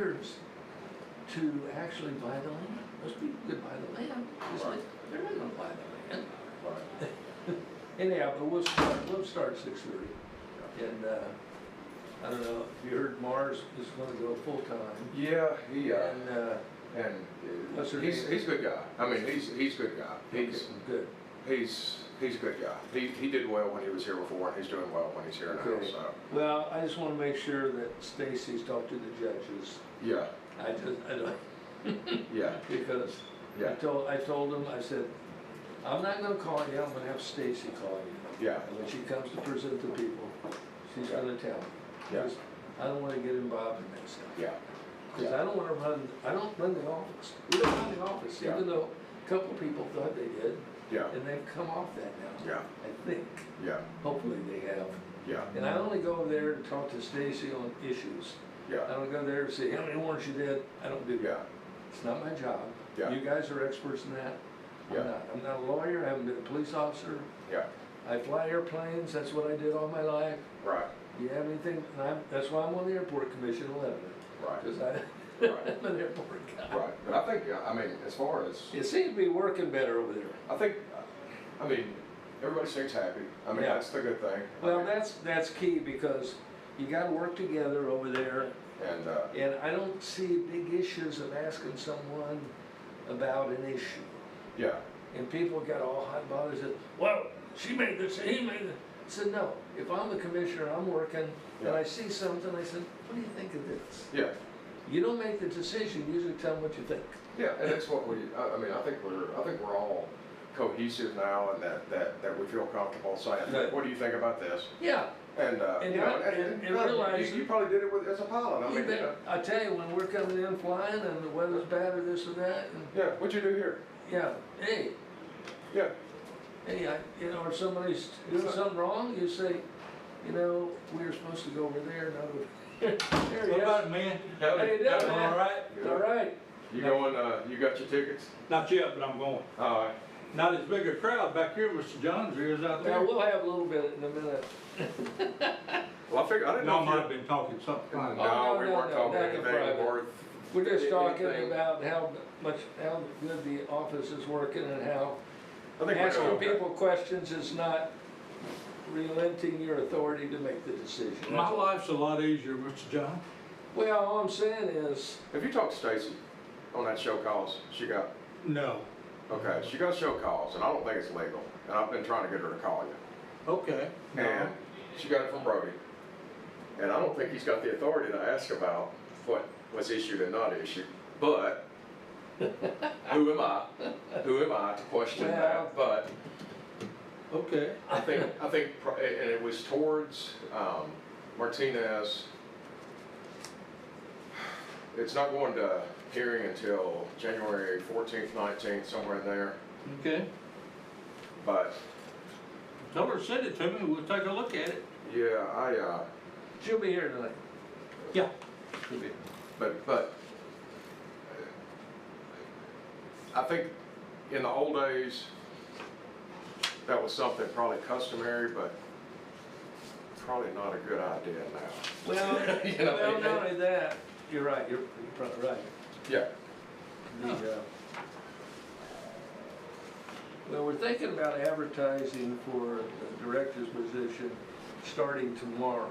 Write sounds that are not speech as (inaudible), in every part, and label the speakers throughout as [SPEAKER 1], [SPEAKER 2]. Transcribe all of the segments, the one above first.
[SPEAKER 1] neighbors to actually buy the land. Those people could buy the land, it's like, they're not gonna buy the land.
[SPEAKER 2] Right.
[SPEAKER 1] Anyhow, but we'll start, we'll start six thirty. And, uh, I don't know, if you heard Mars is gonna go full-time.
[SPEAKER 2] Yeah, he, uh,
[SPEAKER 1] And, uh,
[SPEAKER 2] and uh,
[SPEAKER 1] What's her
[SPEAKER 2] he's,
[SPEAKER 1] name?
[SPEAKER 2] he's a good guy. I mean, he's, he's a good guy. He's,
[SPEAKER 1] good.
[SPEAKER 2] he's, he's a good guy. He, he did well when he was here before, and he's doing well when he's here now,
[SPEAKER 1] Okay.
[SPEAKER 2] so,
[SPEAKER 1] Well, I just wanna make sure that Stacy's talked to the judges.
[SPEAKER 2] yeah,
[SPEAKER 1] I just, I don't, (laughs)
[SPEAKER 2] yeah,
[SPEAKER 1] because I
[SPEAKER 2] yeah,
[SPEAKER 1] told, I told him, I said, I'm not gonna call you, I'm gonna have Stacy call you.
[SPEAKER 2] yeah,
[SPEAKER 1] And when she comes to present to people, she's
[SPEAKER 2] Yeah.
[SPEAKER 1] gonna tell me.
[SPEAKER 2] Yeah.
[SPEAKER 1] 'Cause I don't wanna get involved in that stuff.
[SPEAKER 2] yeah,
[SPEAKER 1] Because I don't wanna run, I don't run the office. We don't run the office,
[SPEAKER 2] Yeah.
[SPEAKER 1] even though a couple people thought they did,
[SPEAKER 2] yeah,
[SPEAKER 1] and they've come off that now,
[SPEAKER 2] yeah,
[SPEAKER 1] I think.
[SPEAKER 2] yeah,
[SPEAKER 1] Hopefully they have.
[SPEAKER 2] yeah,
[SPEAKER 1] And I only go there to talk to Stacy on issues. I
[SPEAKER 2] yeah,
[SPEAKER 1] don't go there to say, how many warrants you did? I don't do that.
[SPEAKER 2] yeah,
[SPEAKER 1] It's not my job.
[SPEAKER 2] Yeah.
[SPEAKER 1] You guys are experts in that.
[SPEAKER 2] Yeah.
[SPEAKER 1] I'm not. I'm not a lawyer, I haven't been a police officer.
[SPEAKER 2] yeah,
[SPEAKER 1] I fly airplanes, that's what I did all my life.
[SPEAKER 2] right,
[SPEAKER 1] You have anything, and I'm, that's why I'm on the airport commission eleven,
[SPEAKER 2] right,
[SPEAKER 1] because I,
[SPEAKER 2] (laughs) right,
[SPEAKER 1] I'm an airport guy.
[SPEAKER 2] right. But I think, uh, I mean, as far as,
[SPEAKER 1] It seems to be working better over there.
[SPEAKER 2] I think, I mean, everybody seems happy. I mean,
[SPEAKER 1] Yeah.
[SPEAKER 2] that's the good thing. I
[SPEAKER 1] Well,
[SPEAKER 2] mean,
[SPEAKER 1] that's, that's key because you gotta work together over there.
[SPEAKER 2] And, uh,
[SPEAKER 1] And I don't see big issues of asking someone about an issue.
[SPEAKER 2] yeah,
[SPEAKER 1] And people got all hot and bothered, said, well, she made this, he made that. I said, no, if I'm the commissioner, I'm working, and I
[SPEAKER 2] Yeah.
[SPEAKER 1] see something, I said, what do you think of this?
[SPEAKER 2] yeah,
[SPEAKER 1] You don't make the decision, you usually tell them what you think.
[SPEAKER 2] Yeah, and that's what we, I, I mean, I think we're, I think we're all cohesive now and that, that, that we feel comfortable saying,
[SPEAKER 1] Right.
[SPEAKER 2] what do you think about this?
[SPEAKER 1] Yeah,
[SPEAKER 2] And, uh,
[SPEAKER 1] And
[SPEAKER 2] you know,
[SPEAKER 1] I- and- and
[SPEAKER 2] you-
[SPEAKER 1] realize-
[SPEAKER 2] You probably did it with, as a pilot, I
[SPEAKER 1] you
[SPEAKER 2] mean, you
[SPEAKER 1] bet.
[SPEAKER 2] know,
[SPEAKER 1] I tell you, when we're coming in flying and the weather's bad or this or that, and,
[SPEAKER 2] yeah, what'd you do here?
[SPEAKER 1] yeah, hey,
[SPEAKER 2] Yeah,
[SPEAKER 1] hey, I, you know, or somebody's doing something wrong, you say, you know, we were supposed to go over there, no. (laughs) There he
[SPEAKER 3] What
[SPEAKER 1] is.
[SPEAKER 3] about it, man?
[SPEAKER 2] How
[SPEAKER 1] How you doing,
[SPEAKER 3] I'm all
[SPEAKER 1] man?
[SPEAKER 3] right.
[SPEAKER 1] All right.
[SPEAKER 2] you going, uh, you got your tickets?
[SPEAKER 3] Not yet, but I'm going.
[SPEAKER 2] All right,
[SPEAKER 3] Not as big a crowd back here, Mr. Johns, there is
[SPEAKER 1] Now,
[SPEAKER 3] out there.
[SPEAKER 1] we'll have a little bit in a minute.
[SPEAKER 2] well, I figured, I didn't know.
[SPEAKER 3] Y'all
[SPEAKER 2] if
[SPEAKER 3] might
[SPEAKER 2] you-
[SPEAKER 3] have been talking something.
[SPEAKER 2] No,
[SPEAKER 1] no,
[SPEAKER 2] we
[SPEAKER 1] no,
[SPEAKER 2] weren't
[SPEAKER 1] no,
[SPEAKER 2] talking
[SPEAKER 1] that's
[SPEAKER 2] anything
[SPEAKER 1] private.
[SPEAKER 2] worth,
[SPEAKER 1] We're just talking
[SPEAKER 2] Anything.
[SPEAKER 1] about how much, how good the office is working and how
[SPEAKER 2] I think we're
[SPEAKER 1] asking
[SPEAKER 2] doing okay.
[SPEAKER 1] people questions is not relenting your authority to make the decision.
[SPEAKER 3] My life's a lot easier, Mr. John.
[SPEAKER 1] Well, all I'm saying is,
[SPEAKER 2] Have you talked to Stacy on that show calls she got?
[SPEAKER 3] No.
[SPEAKER 2] Okay, she got show calls and I don't think it's legal, and I've been trying to get her to call you.
[SPEAKER 3] Okay.
[SPEAKER 2] And she got it from Brody. And I don't think he's got the authority to ask about what was issued and not issued, but who am I? Who am I to question that? But
[SPEAKER 3] Okay.
[SPEAKER 2] I think, I think, pro- and it was towards um, Martinez. It's not going to hearing until January fourteenth, nineteenth, somewhere in there,
[SPEAKER 3] Okay.
[SPEAKER 2] but
[SPEAKER 3] Tell her, to send it to me, we'll take a look at it.
[SPEAKER 2] yeah, I, uh,
[SPEAKER 1] she'll be here tonight.
[SPEAKER 3] Yeah.
[SPEAKER 2] But, but, I think in the old days, that was something probably customary, but probably not a good idea now.
[SPEAKER 1] Well,
[SPEAKER 2] You know,
[SPEAKER 1] well, not only that, you're right, you're, you're probably right.
[SPEAKER 2] Yeah,
[SPEAKER 1] The, uh, Well, we're thinking about advertising for the director's position starting tomorrow,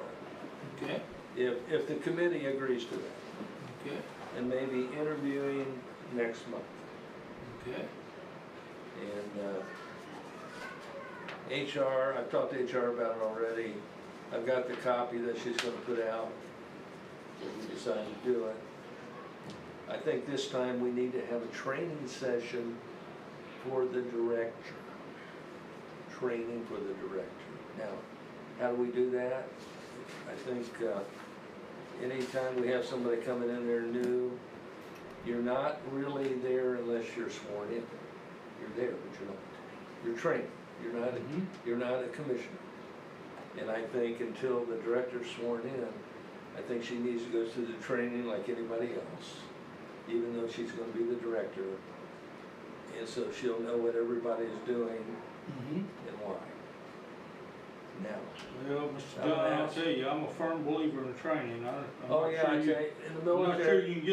[SPEAKER 3] Okay.
[SPEAKER 1] if, if the committee agrees to that,
[SPEAKER 3] Okay.
[SPEAKER 1] and maybe interviewing next month.
[SPEAKER 3] Okay.
[SPEAKER 1] And uh, HR, I've talked to HR about it already. I've got the copy that she's gonna put out if we decide to do it. I think this time we need to have a training session for the director. Training for the director. Now, how do we do that? I think uh, anytime we have somebody coming in there new, you're not really there unless you're sworn in. You're there, but you're not. You're trained. You're not,
[SPEAKER 3] Mhm.
[SPEAKER 1] you're not a commissioner. And I think until the director's sworn in, I think she needs to go through the training like anybody else, even though she's gonna be the director. And so she'll know what everybody is doing
[SPEAKER 3] Mm-hmm.
[SPEAKER 1] and why. Now,
[SPEAKER 3] Well, Mr. John, I'll tell you, I'm a firm believer in training. I- I'm
[SPEAKER 1] oh
[SPEAKER 3] not
[SPEAKER 1] yeah,
[SPEAKER 3] sure
[SPEAKER 1] I tell
[SPEAKER 3] you-
[SPEAKER 1] you, in the
[SPEAKER 3] I'm not sure
[SPEAKER 1] military.
[SPEAKER 3] you can get